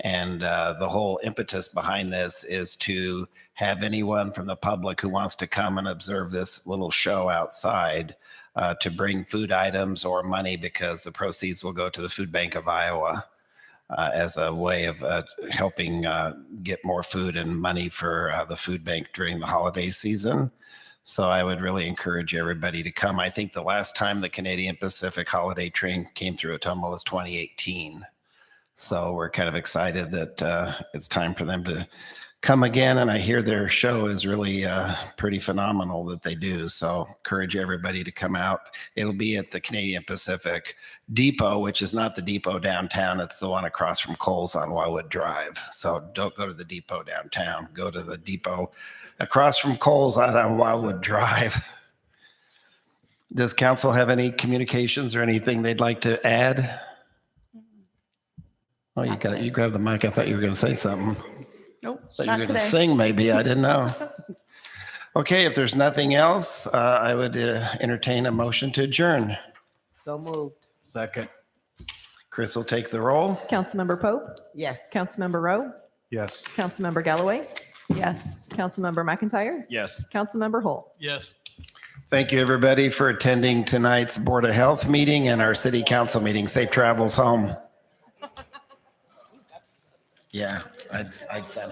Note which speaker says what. Speaker 1: And uh, the whole impetus behind this is to have anyone from the public who wants to come and observe this little show outside uh, to bring food items or money because the proceeds will go to the Food Bank of Iowa uh, as a way of uh, helping uh, get more food and money for uh, the food bank during the holiday season. So I would really encourage everybody to come. I think the last time the Canadian Pacific holiday train came through Ottumwa was 2018. So we're kind of excited that uh, it's time for them to come again. And I hear their show is really uh, pretty phenomenal that they do. So encourage everybody to come out. It'll be at the Canadian Pacific Depot, which is not the depot downtown. It's the one across from Coles on Wildwood Drive. So don't go to the depot downtown. Go to the depot across from Coles out on Wildwood Drive. Does council have any communications or anything they'd like to add? Oh, you got, you grabbed the mic. I thought you were going to say something.
Speaker 2: Nope,
Speaker 1: Thought you
Speaker 2: not
Speaker 1: were going to
Speaker 2: today.
Speaker 1: sing, maybe. I didn't know. Okay, if there's nothing else, uh, I would uh, entertain a motion to adjourn.
Speaker 3: So moved.
Speaker 4: Second.
Speaker 1: Chris will take the roll.
Speaker 5: Councilmember Pope,
Speaker 3: Yes.
Speaker 5: Councilmember Rowe,
Speaker 4: Yes.
Speaker 5: Councilmember Galloway,
Speaker 2: Yes.
Speaker 5: Councilmember McIntyre,
Speaker 4: Yes.
Speaker 5: Councilmember Holt.
Speaker 4: Yes.
Speaker 1: Thank you, everybody, for attending tonight's Board of Health meeting and our city council meeting. Safe travels home. Yeah, I'd, I'd say.